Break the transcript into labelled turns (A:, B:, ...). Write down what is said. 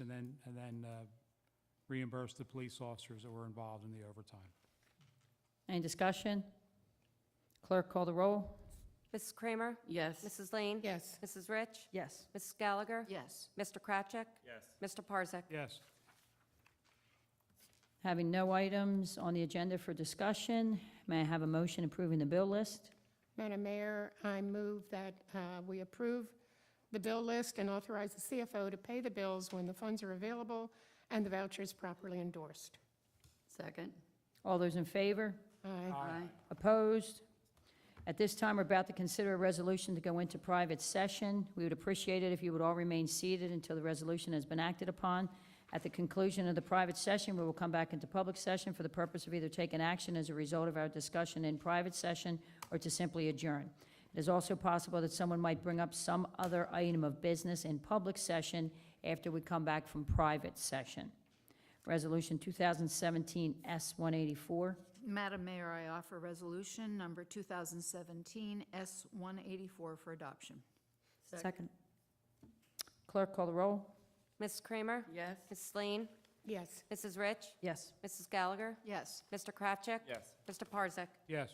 A: and then, and then uh, reimburse the police officers that were involved in the overtime.
B: Any discussion? Clerk call the roll.
C: Mrs. Kramer?
D: Yes.
C: Mrs. Lane?
E: Yes.
C: Mrs. Rich?
B: Yes.
C: Mrs. Gallagher?
D: Yes.
C: Mr. Krachek?
F: yes,
C: Mr. Parzak?
A: Yes,
B: Having no items on the agenda for discussion, may I have a motion approving the bill list?
E: Madam Mayor, I move that uh, we approve the bill list and authorize the CFO to pay the bills when the funds are available and the vouchers properly endorsed.
D: Second?
B: All those in favor?
E: Aye.
D: Aye.
B: Opposed? At this time, we're about to consider a resolution to go into private session. We would appreciate it if you would all remain seated until the resolution has been acted upon. At the conclusion of the private session, we will come back into public session for the purpose of either taking action as a result of our discussion in private session or to simply adjourn. It is also possible that someone might bring up some other item of business in public session after we come back from private session. Resolution 2017 S-184.
G: Madam Mayor, I offer resolution number 2017 S-184 for adoption.
D: Second.
B: Clerk, call the roll.
C: Mrs. Kramer?
D: Yes.
C: Mrs. Lane?
E: Yes.
C: Mrs. Rich?
B: Yes.
C: Mrs. Gallagher?
G: Yes.
C: Mr. Krachek?
F: yes.
C: Mr. Parzak?
A: yes.